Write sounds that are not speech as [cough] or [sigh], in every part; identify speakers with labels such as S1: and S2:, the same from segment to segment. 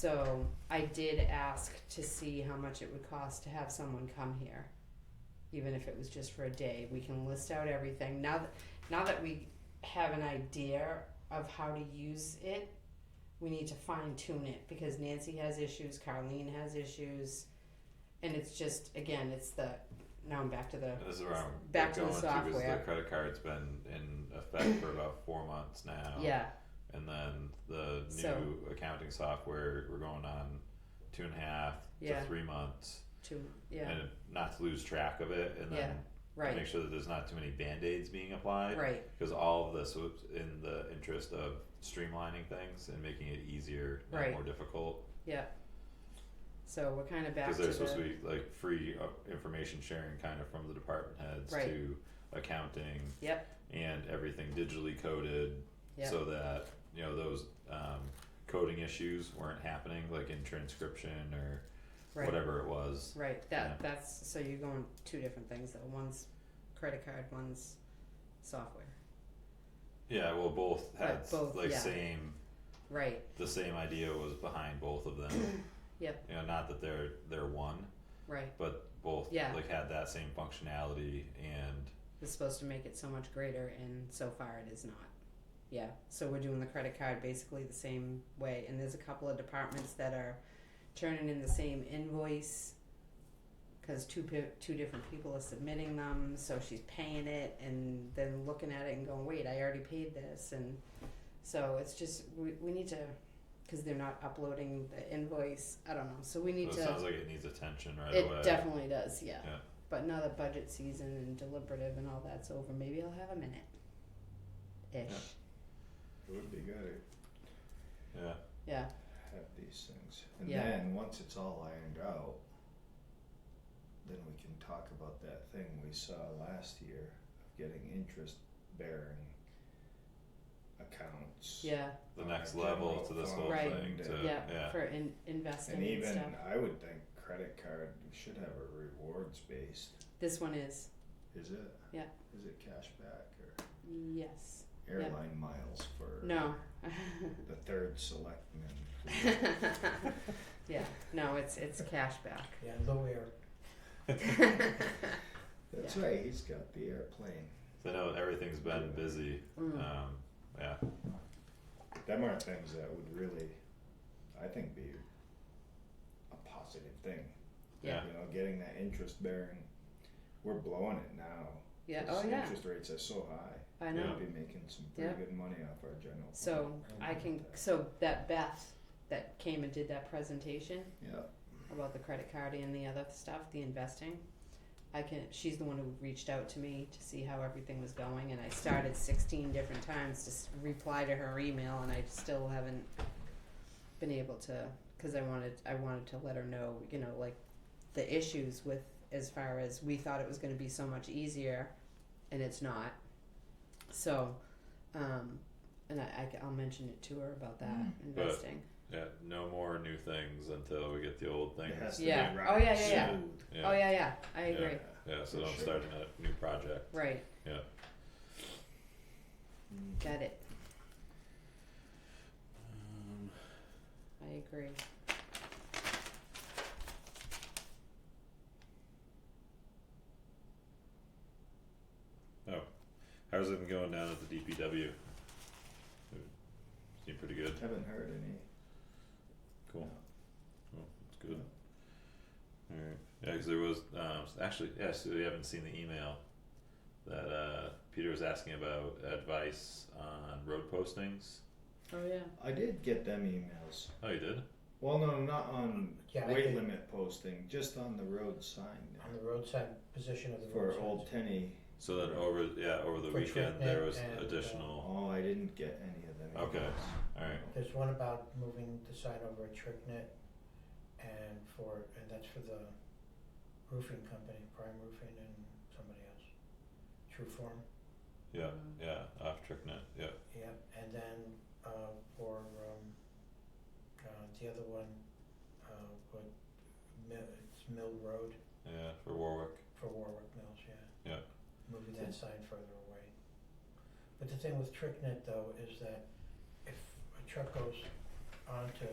S1: So I did ask to see how much it would cost to have someone come here, even if it was just for a day. We can list out everything now. That, now that we have an idea of how to use it, we need to fine tune it because Nancy has issues, Carlene has issues, and it's just again, it's the now I'm back to the
S2: This is where I'm
S1: Back to the
S2: going to because
S1: software.
S2: the credit card's been in effect for about four months now.
S1: yeah.
S2: And then the new
S1: So-
S2: accounting software, we're going on two and a half
S1: Yeah.
S2: to three months,
S1: To yeah,
S2: and not to lose track of it, and then
S1: right,
S2: make sure that there's not too many band aids being applied.
S1: right,
S2: Because all of this was in the interest of streamlining things and making it easier, not
S1: Right.
S2: more difficult.
S1: yeah. So we're kind of back
S2: Because
S1: to
S2: they're
S1: the
S2: supposed to be like free uh, information sharing kind of from the department heads
S1: Right.
S2: to accounting.
S1: Yep.
S2: And everything digitally coded
S1: Yep.
S2: so that, you know, those um coding issues weren't happening like in transcription or
S1: right.
S2: whatever it was.
S1: Right,
S2: Yeah.
S1: that, that's, so you're going two different things though, one's credit card, one's software,
S2: Yeah, well both had s-
S1: both,
S2: like
S1: yeah.
S2: same
S1: right,
S2: the same idea was behind both of them.
S1: [coughs] Yep.
S2: You know, not that they're they're one,
S1: right,
S2: but both
S1: Yeah.
S2: like had that same functionality and
S1: it's supposed to make it so much greater and so far it is not. Yeah, so we're doing the credit card basically the same way, and there's a couple of departments that are turning in the same invoice. Cause two pe- two different people are submitting them, so she's paying it and then looking at it and going, wait, I already paid this, and so it's just, we, we need to, cause they're not uploading the invoice, I don't know, so we need
S2: so
S1: to.
S2: it sounds like it needs attention right
S1: It
S2: away.
S1: definitely does, yeah.
S2: Yeah.
S1: But now that budget season and deliberative and all that's over, maybe I'll have a minute. Ish.
S3: Would be good
S2: yeah.
S1: Yeah.
S3: to have these things. And
S1: Yeah.
S3: then, once it's all ironed out, then we can talk about that thing we saw last year of getting interest bearing accounts.
S1: Yeah.
S2: the
S3: on
S2: next
S3: our
S2: level
S3: general
S2: to this whole
S3: fund
S1: Right.
S2: thing.
S3: and,
S2: To,
S3: uh,
S1: Yeah.
S2: yeah.
S1: For in- investing
S3: And
S1: and,
S3: even,
S1: stuff.
S3: I would think credit card should have a rewards based,
S1: This one is.
S3: is it?
S1: Yeah.
S3: Is it cash back or
S1: Yes.
S3: airline miles for
S1: No.
S3: the third selectman?
S1: [laughs] yeah. No, it's it's cash back.
S4: Yeah, low air.
S3: That's right, he's got the airplane.
S2: So I know everything's been busy.
S1: Mm.
S2: Um, yeah.
S3: Them are things that would really, I think, be a positive thing.
S1: Yeah.
S3: You know, getting that interest bearing, we're blowing it now.
S1: yeah.
S3: 'cause
S1: Oh yeah.
S3: Interest rates are so high.
S1: I know.
S3: We'd be making some pretty
S1: Yeah.
S3: good money off our general. fund.
S1: So I can so that Beth that came and did that presentation
S3: Yeah,
S1: about the credit card and the other stuff, the investing. I can she's the one who reached out to me to see how everything was going and I started 16 different times to s- reply to her email and I still haven't been able to cuz I wanted I wanted to let her know, you know, like the issues with as far as we thought it was going to be so much easier and it's not. So um and I, I, will mention it to her about that
S3: Mm.
S2: But-
S1: investing.
S2: Yeah. No more new things until we get the old things.
S3: it has to be
S1: Yeah.
S3: right.
S1: Oh, yeah, yeah,
S2: yeah.
S3: smooth.
S2: Yeah.
S1: Oh yeah, yeah. I agree.
S2: Yeah. So
S3: For
S2: don't
S3: sure.
S2: start a new project.
S1: Right.
S3: Mm.
S1: Got it.
S2: Um,
S1: I agree.
S2: how's it going down at the DPW? Seem pretty good.
S3: Haven't heard any.
S2: Cool.
S3: No.
S2: Oh, that's good. Alright, yeah, cause there was, um, s- actually, yeah, so we haven't seen the email that, uh, Peter was asking about advice on road postings.
S1: Oh yeah.
S3: I did get them emails.
S2: Oh, you did?
S3: Well, no, not on
S4: Yeah, I
S3: weight
S4: did.
S3: limit posting, just on the road sign
S4: On the roadside position of the road
S3: for Old Tenny.
S2: So then over, yeah, over the
S4: For
S2: weekend, there was
S4: treatment and, uh,
S2: additional,
S3: Oh, I didn't get any of them.
S2: Okay.
S3: emails.
S2: alright,
S4: There's one about moving the sign over at Tricknet and for, and that's for the roofing company, Prime Roofing and somebody else. True Form,
S2: yeah, yeah, off TrickNet, yeah,
S4: yeah, and then uh for um uh the other one, uh what, Mill, it's Mill Road
S2: yeah, for Warwick,
S4: for Warwick Mills, yeah.
S2: Yeah.
S4: Moving that sign further away. But the thing with TrickNet though is that if a truck goes onto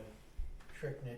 S4: Tricknet